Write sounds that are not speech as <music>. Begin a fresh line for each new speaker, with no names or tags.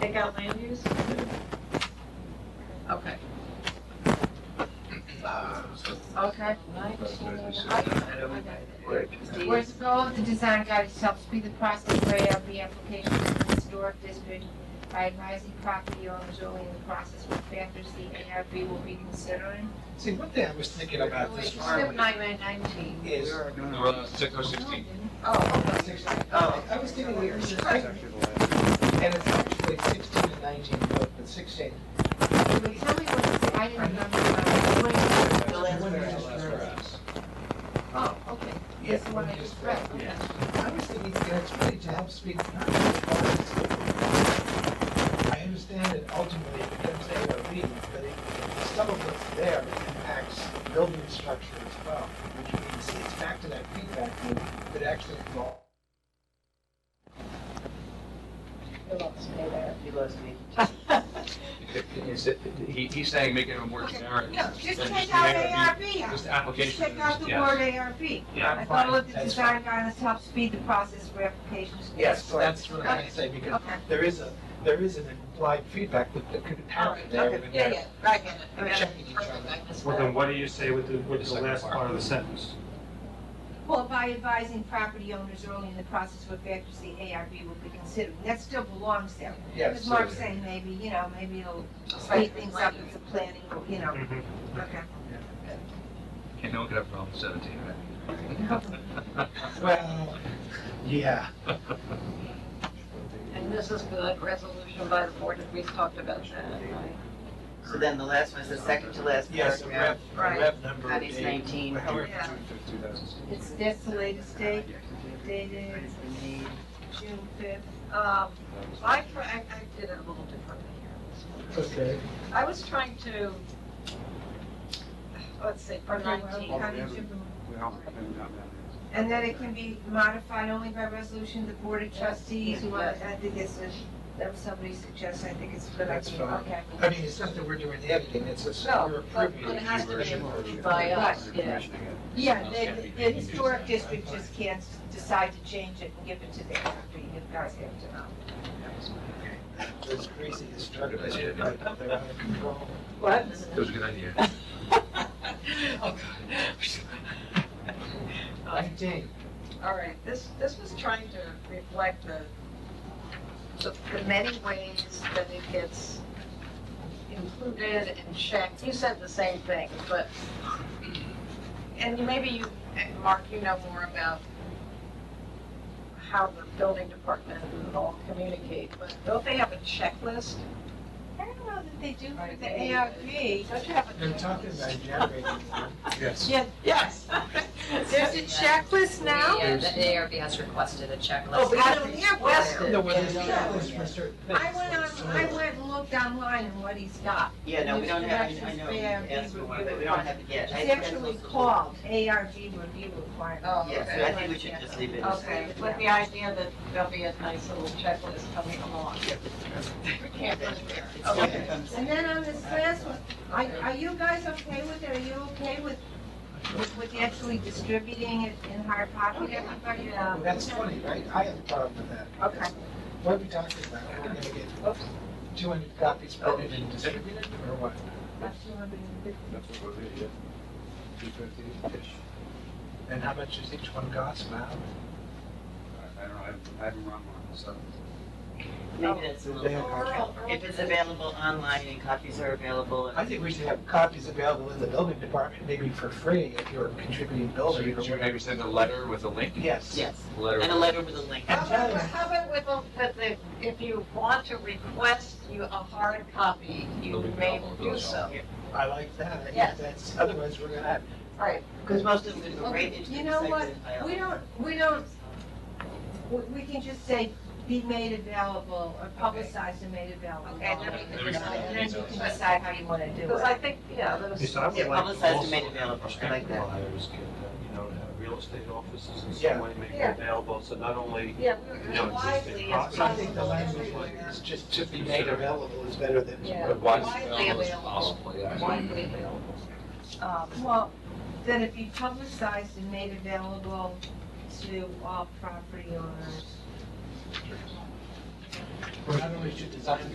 take out land use?
Okay,
So
okay.
Whereas the goal of the design guide is to help speed the process layout of the application of the historic district by advising property owners early in the process what factors the ARB will be considering.
See, one thing I was thinking about this
Step
farm
nine by nineteen.
is,
Six oh sixteen.
Oh,
I I was thinking we were six, and it's actually sixteen and nineteen, but the sixteen.
Tell me what, I didn't remember. what it was.
The last whereas.
Oh, okay.
Yeah,
That's the one I just read.
yeah. I was thinking, you know, it's really to help speed the process. I understand that ultimately it becomes ARB, but it- some of what's there impacts building structure as well, which means it's back to that feedback loop that actually involves
Is it- He, he's saying making it more
Okay.
generic.
No, just
than
take out
ARB,
ARB.
Just application.
Check out the
yes.
word ARB.
Yeah.
I thought what the
That's
design guidance helps speed the process for applications.
Yes, that's what I'm trying to say, because
Okay.
there is a, there is an implied feedback loop that could happen there when
yeah,
they're
yeah, I get it. I mean, I-
checking each other.
Well, then what do you say with the, with the
The second
last
part.
part of the sentence?
Well, by advising property owners early in the process what factors the ARB will be considering. That still belongs there.
Yes.
As Mark's saying, maybe, you know, maybe it'll speed things up with the planning, you know.
Mhm.
Okay.
And no one could have problem seventeen, right? <laughs>
Well, yeah.
And this is for the resolution by the board, we talked about that.
So then the last one is the second to last
Yes, a rev,
paragraph.
a
Right.
rev number.
That is
eight.
19.
However,
Yeah.
It's, that's the latest date, dated
<laughs>
June fifth.
Um, I, tr- I I did it a little differently here.
Okay.
I was trying to, let's see, for
Okay, well,
19.
how did you- And then it can be modified only by resolution of the Board of Trustees, who want, I think it's a, that was somebody suggested, I think it's a good idea.
That's fine.
Okay.
I mean, it's not that we're doing editing, it's just that
No,
we're
but
approving.
it has to be
version.
approved by us, yeah.
Yeah, the, the historic district just can't decide to change it and give it to the ARB, you guys have to know.
Those crazy instructors, they're out of control.
What?
That was a good idea.
Oh, Nineteen.
All right, this, this was trying to reflect the, the the many ways that it gets included and checked. You said the same thing, but, and you- maybe you, and Mark, you know more about how the building department and all communicate, but don't they have a checklist?
I don't know that they do for the
Right.
ARB.
Don't you have a
They're talking
checklist?
about generating. Yes.
Yeah,
Yes.
there's a checklist now?
Yeah, the ARB has requested a
Oh,
checklist.
but I don't have one.
No, well, there's
Yeah.
checklists for certain things.
I went
like
on,
soil.
I went and looked online and what he's got.
Yeah, no, we don't have, I- I know, we asked for one, but we don't have it yet. I
It's
think that's
actually
also-
called ARB review requirement.
Oh,
Yes,
okay.
I think we should just leave it.
Okay, with the idea that there'll be a nice little checklist coming along. We can't go there. Okay.
And then on this last one, are, are you guys okay with it? Are you okay with, with- with actually distributing it in hard copy to everybody?
Well,
Um,
That's funny, right? I have a problem with that.
Okay.
What are we talking about? We're gonna get two hundred copies printed and distributed, or what? And how much does each one cost now?
I don't know, I haven't run one, so.
Maybe that's a
They have
little.
contract.
If it's available online and copies are available.
I think we should have copies available in the building department, maybe for free if you're contributing
So
building.
you
or
could
whatever.
maybe send a letter with a link?
Yes.
Yes,
Letter.
and a letter with a link.
How about, how about with, a- with the, if you want to request you a hard copy, you may do so.
I like that. I think
Yes.
that's- Otherwise, we're gonna have,
Right.
Because most of them go right
Okay,
into the
you know what?
executive file.
We don't, we don't, we, we can just say be made available or publicized and made available.
Okay, then we can
There we go. decide.
And then you can decide how you want to do
Because I
it.
think, yeah, those,
Yes, I would
Yeah,
like to
publicize and
also
make it available. I like that.
have Buyers get, that, you know, to have real estate offices in
Yeah.
some way, make it
Yeah.
available, so not only,
yeah,
you
we
know,
were
existing
widely as
property.
so I think the
possible
language
everywhere.
is just to be made available is better than.
Yeah.
But why is it
Widely
available as
available.
possible, yeah.
Widely available. Um,
Well, then if you publicized and made available to all property owners.
Not only should design